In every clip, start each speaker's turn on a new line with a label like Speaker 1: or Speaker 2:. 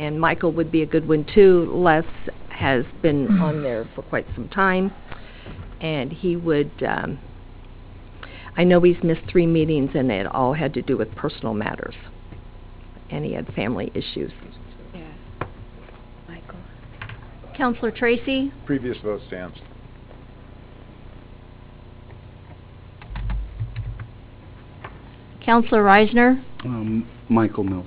Speaker 1: and Michael would be a good one too. Les has been on there for quite some time, and he would, um, I know he's missed three meetings, and it all had to do with personal matters, and he had family issues.
Speaker 2: Yeah. Michael.
Speaker 3: Counselor Tracy,
Speaker 4: Previous vote stands.
Speaker 3: Counselor Reisner,
Speaker 5: Um, Michael Milt.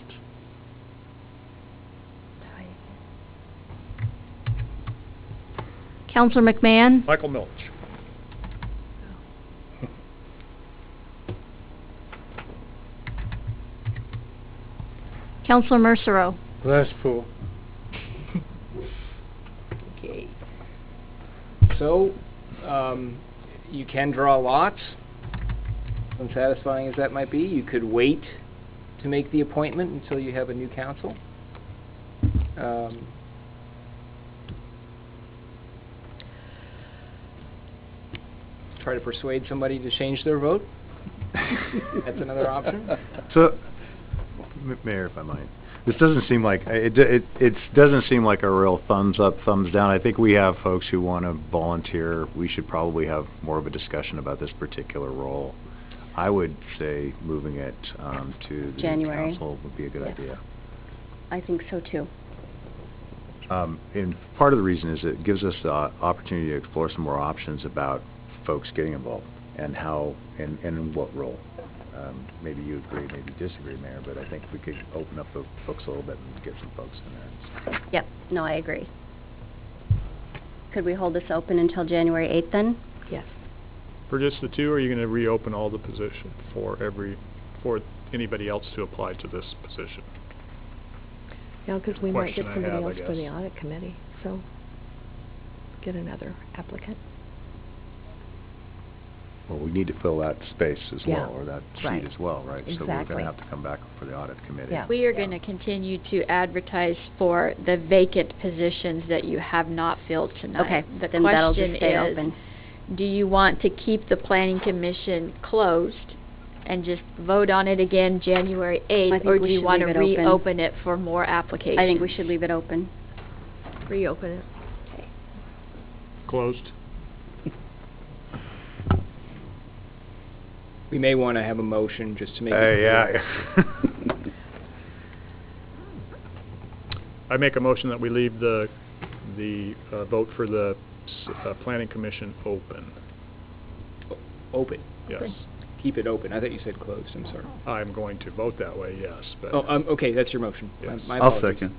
Speaker 3: Counselor McMahon,
Speaker 4: Michael Milch.
Speaker 3: Counselor Mercero.
Speaker 6: Glasspool.
Speaker 1: Okay.
Speaker 6: So, um, you can draw lots, unsatisfying as that might be. You could wait to make the appointment until you have a new council. Um, try to persuade somebody to change their vote. That's another option.
Speaker 4: So, M- Mayor, if I might, this doesn't seem like, it, it, it doesn't seem like a real thumbs up, thumbs down. I think we have folks who want to volunteer. We should probably have more of a discussion about this particular role. I would say moving it, um, to the new
Speaker 2: January.
Speaker 4: council would be a good
Speaker 2: Yeah.
Speaker 4: idea.
Speaker 2: I think so too.
Speaker 4: Um, and part of the reason is it gives us the o- opportunity to explore some more options about folks getting involved and how, and, and in what role. Um, maybe you agree, maybe you disagree, Mayor, but I think we could open up the books a little bit and get some folks in there.
Speaker 2: Yep, no, I agree. Could we hold this open until January 8th then?
Speaker 1: Yes.
Speaker 7: For just the two, or are you gonna reopen all the position for every, for anybody else to apply to this position?
Speaker 1: Yeah, because we might get
Speaker 7: Question I
Speaker 1: somebody
Speaker 7: have, I
Speaker 1: else for the
Speaker 7: guess.
Speaker 1: audit committee, so get another applicant.
Speaker 4: Well, we need to fill that space as
Speaker 1: Yeah,
Speaker 4: well, or that
Speaker 1: right.
Speaker 4: seat as well, right? So we're
Speaker 1: Exactly.
Speaker 4: gonna have to come back for the audit committee.
Speaker 1: Yeah.
Speaker 8: We are going to continue to advertise for the vacant positions that you have not filled
Speaker 2: Okay,
Speaker 8: tonight.
Speaker 2: then that'll just stay
Speaker 8: The
Speaker 2: open.
Speaker 8: question is, do you want to keep the planning commission closed and just vote on it again January
Speaker 2: I
Speaker 8: 8th?
Speaker 2: think
Speaker 8: Or
Speaker 2: we
Speaker 8: do you
Speaker 2: should
Speaker 8: want to
Speaker 2: leave it open.
Speaker 8: reopen it for more applications?
Speaker 2: I think we should leave it open.
Speaker 1: Reopen it.
Speaker 7: Closed?
Speaker 6: We may want to have a motion just to make it
Speaker 4: Hey,
Speaker 6: clear.
Speaker 4: yeah.
Speaker 7: I make a motion that we leave the, the uh, vote for the s- uh, planning commission open.
Speaker 6: Open.
Speaker 7: Yes.
Speaker 6: Keep it open. I thought you said closed, I'm sorry.
Speaker 7: I'm going to vote that way, yes, but.
Speaker 6: Oh, um, okay, that's your motion. My-
Speaker 7: Yes.
Speaker 6: my
Speaker 5: I'll
Speaker 6: apologies.
Speaker 5: second.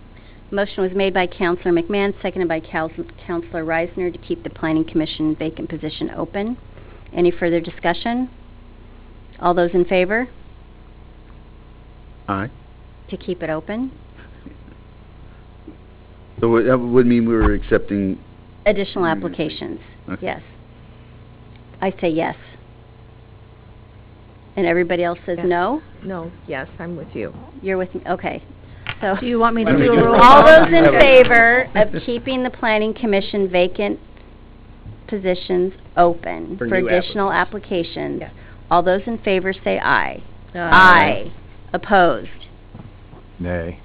Speaker 2: Motion was made by Counselor McMahon, seconded by Counsel- Counselor Reisner to keep the Planning Commission vacant position open. Any further discussion? All those in favor
Speaker 5: Aye.
Speaker 2: to keep it open?
Speaker 5: So it- that would mean we were accepting,
Speaker 2: Additional
Speaker 5: Mm, I see.
Speaker 2: applications,
Speaker 5: Okay.
Speaker 2: yes. I say yes. And everybody else says
Speaker 1: Yeah.
Speaker 2: no?
Speaker 1: No, yes, I'm with you.
Speaker 2: You're with me, okay. So,
Speaker 3: Do you want me
Speaker 6: Why
Speaker 3: to
Speaker 6: don't we
Speaker 3: do a
Speaker 6: do
Speaker 3: roll
Speaker 6: roll
Speaker 3: call?
Speaker 2: all those in
Speaker 6: Yeah.
Speaker 2: favor of keeping the planning commission vacant positions open
Speaker 6: For
Speaker 2: for
Speaker 6: new
Speaker 2: additional applications?
Speaker 1: Yeah.
Speaker 2: All those in favor say aye. Aye. Opposed?
Speaker 4: Nay.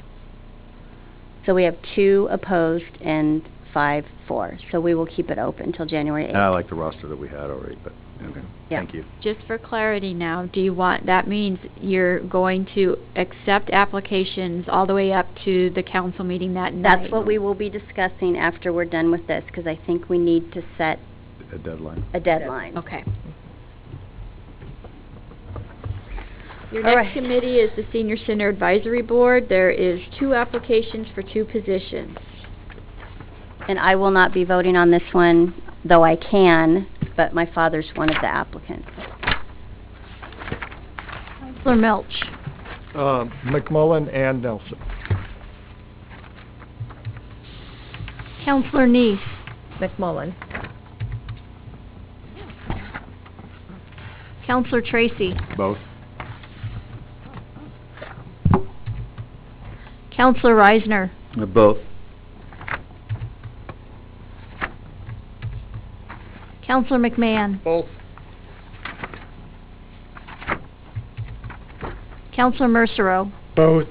Speaker 2: So we have two opposed and five for. So we will keep it open until January
Speaker 4: And I
Speaker 2: 8th.
Speaker 4: like the roster that we had already, but, okay,
Speaker 2: Yeah.
Speaker 4: thank you.
Speaker 8: Just for clarity now, do you want, that means you're going to accept applications all the way up to the council meeting that night?
Speaker 2: That's what we will be discussing after we're done with this, because I think we need to set
Speaker 4: A deadline.
Speaker 2: a deadline.
Speaker 8: Okay. Your
Speaker 2: All
Speaker 8: next
Speaker 2: right.
Speaker 8: committee is the Senior Center Advisory Board. There is two applications for two positions.
Speaker 2: And I will not be voting on this one, though I can, but my father's one of the applicants.
Speaker 3: Counselor Milch,
Speaker 7: um, McMullen and Nelson.
Speaker 3: Counselor Neese,
Speaker 1: McMullen,
Speaker 3: Counselor Tracy,
Speaker 4: Both?
Speaker 3: Counselor Reisner,
Speaker 5: uh, both.
Speaker 3: Counselor McMahon,
Speaker 6: Both.
Speaker 3: Counselor Mercero,
Speaker 6: Both.